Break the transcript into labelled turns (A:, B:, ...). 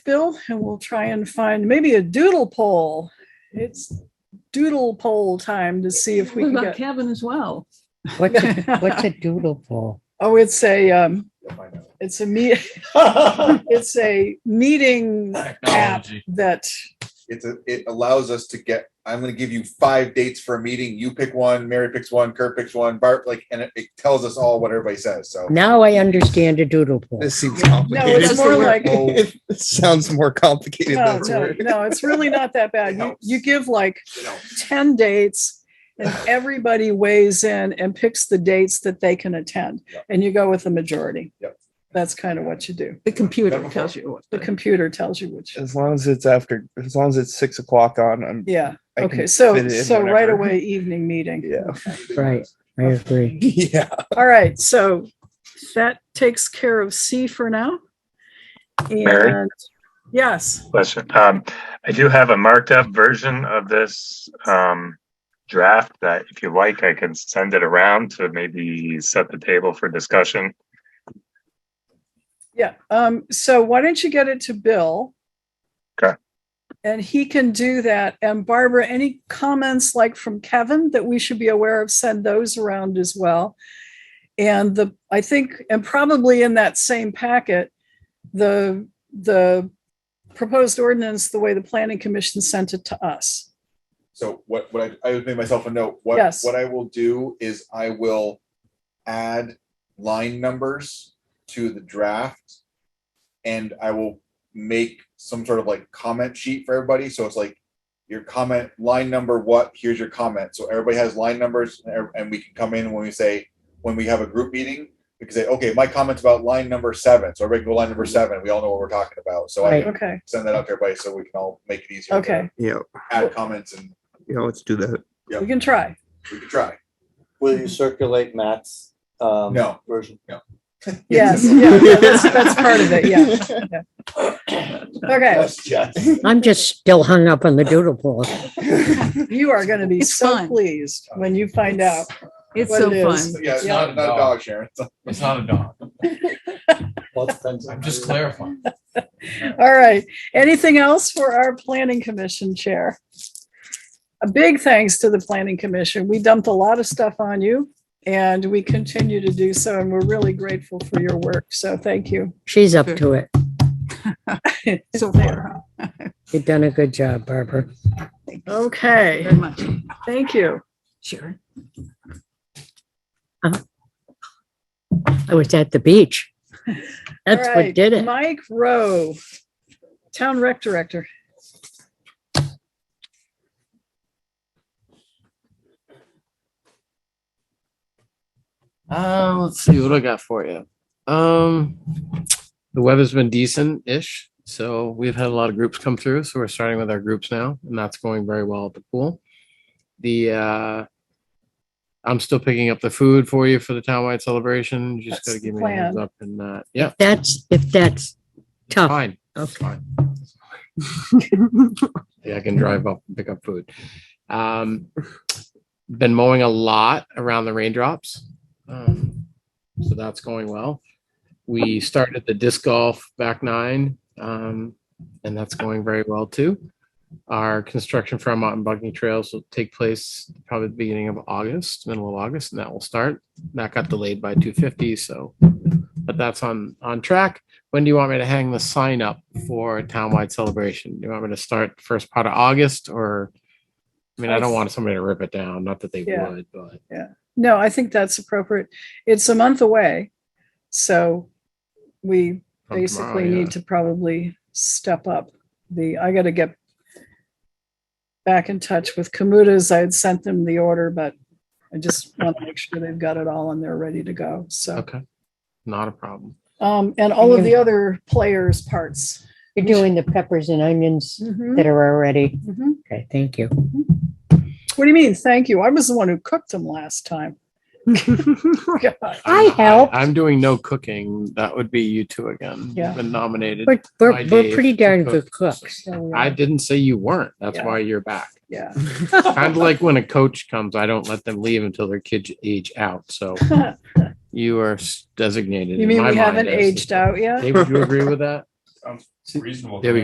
A: Bill, and we'll try and find maybe a doodle poll. It's doodle poll time to see if we
B: What
A: can
B: about
A: get.
B: Kevin as well?
C: What's a, what's a doodle poll?
A: Oh, it's a, um, it's a me, it's a meeting app
D: Technology.
A: that,
E: It's a, it allows us to get, I'm gonna give you five dates for a meeting. You pick one, Mary picks one, Kurt picks one, Bart, like, and it, it tells us all what everybody says, so.
C: Now I understand a doodle poll.
F: This seems
A: no,
F: complicated.
A: it's more like.
F: It sounds more complicated
A: No,
F: than it's
A: oh, no,
F: worth.
A: no, it's really not that bad. You, you give like
E: You know,
A: ten dates and everybody weighs in and picks the dates that they can attend
E: Yep.
A: and you go with the majority.
E: Yep.
A: That's kind of what you do.
B: The computer
E: Kevin.
B: tells you what.
A: The
B: to-
A: computer tells you which.
F: As long as it's after, as long as it's six o'clock on, I'm.
A: Yeah,
F: I can
A: okay, so,
F: fit it in
A: so right
F: whenever.
A: away evening meeting.
F: Yeah.
C: Right, I agree.
F: Yeah.
A: All right, so that takes care of C for now.
G: Mary?
A: And, yes,
G: Question. Um, I do have a marked up version of this, um, draft that if you like, I can send it around to maybe set the table for discussion.
A: yeah, um, so why don't you get it to Bill?
G: Okay.
A: And he can do that. And Barbara, any comments like from Kevin that we should be aware of, send those around as well. And the, I think, and probably in that same packet, the, the proposed ordinance, the way the planning commission sent it to us.
E: So what, what I, I would make myself a note, what,
A: Yes.
E: what I will do is I will add line numbers to the draft. And I will make some sort of like comment sheet for everybody, so it's like your comment, line number what, here's your comment, so everybody has line numbers, and ev- and we can come in when we say, when we have a group meeting, we can say, okay, my comment's about line number seven, so everybody go line number seven, we all know what we're talking about, so I
C: Right.
E: can
A: Okay,
E: send that out to everybody, so we can all make it easier. to
A: Okay.
F: Yeah.
E: Add comments and
F: Yeah. Let's do that.
A: we can try.
E: we can try.
H: Will you circulate Matt's um
E: No.
H: version?
A: Yes, yeah, yeah, that's, that's part of it, yeah. Okay,
C: I'm just still hung up on the doodle poll.
A: you are gonna be
B: It's
A: so
B: fun.
A: pleased when you find out.
B: It's
A: what
B: so
A: it
B: fun.
A: is.
E: Yeah, it's not, not a dog, Sharon.
D: It's not a dog.
H: Well, it depends on-
D: I'm just clarifying.
A: All right, anything else for our planning commission chair? A big thanks to the planning commission. We dumped a lot of stuff on you and we continue to do so and we're really grateful for your work, so thank you.
C: She's up to it.
B: So far,
C: You've done a good job, Barbara.
A: Okay,
B: very much.
A: thank you.
B: Sure.
C: I was at the beach. That's
A: All
C: what
A: right,
C: did it.
A: Mike Rowe, Town Rec Director.
I: Uh, let's see what do I got for you. Um, the weather's been decent-ish, so we've had a lot of groups come through. So we're starting with our groups now, and that's going very well at the pool. The uh, I'm still picking up the food for you for the townwide celebration. You just
A: That's
I: gotta
A: the
I: give me a heads
A: plan.
I: up and uh, yeah,
C: That's, if that's tough.
I: fine. That's
C: Okay.
I: fine. Yeah, I can drive up and pick up food. Um, been mowing a lot around the raindrops. Um, so that's going well. We started the disc golf back nine, um, and that's going very well too. Our construction for our mountain biking trails will take place probably the beginning of August, middle of August, and that will start. That got delayed by two fifty, so, but that's on, on track when do you want me to hang the sign up for a townwide celebration? Do you want me to start the first part of August or? I mean, I don't want somebody to rip it down, not that they
A: Yeah.
I: would, but
A: No, I think that's appropriate. It's a month away. So we
I: from
A: basically
I: tomorrow, yeah.
A: need to probably step up the, I gotta get back in touch with Kamuta's. I had sent them the order, but I just want to make sure they've got it all and they're ready to go. So,
I: Okay, not a problem.
A: um, and all of the other players' parts.
C: You're doing the peppers and onions that are already.
A: Mhm.
C: Okay, thank you.
A: What do you mean? Thank you. I was the one who cooked them last time. God.
C: I
I: I'm-
C: helped.
I: I'm doing no cooking. That would be you two again. You've
A: Yeah.
I: Been nominated.
C: We're,
I: My
C: we're, we're
I: Dave,
C: pretty
I: the
C: darn
I: cook.
C: good cooks.
A: So,
I: I
A: yeah.
I: didn't say you weren't. That's
A: Yeah.
I: why you're back.
A: Yeah.
I: Kind of like when a coach comes, I don't let them leave until their kids age out. So you are s- designated.
A: You
I: in
A: mean
I: my
A: we
I: mind
A: haven't
I: as the-
A: aged out yet?
I: Dave, would you agree with that? sounds reasonable. to
F: There we
I: me.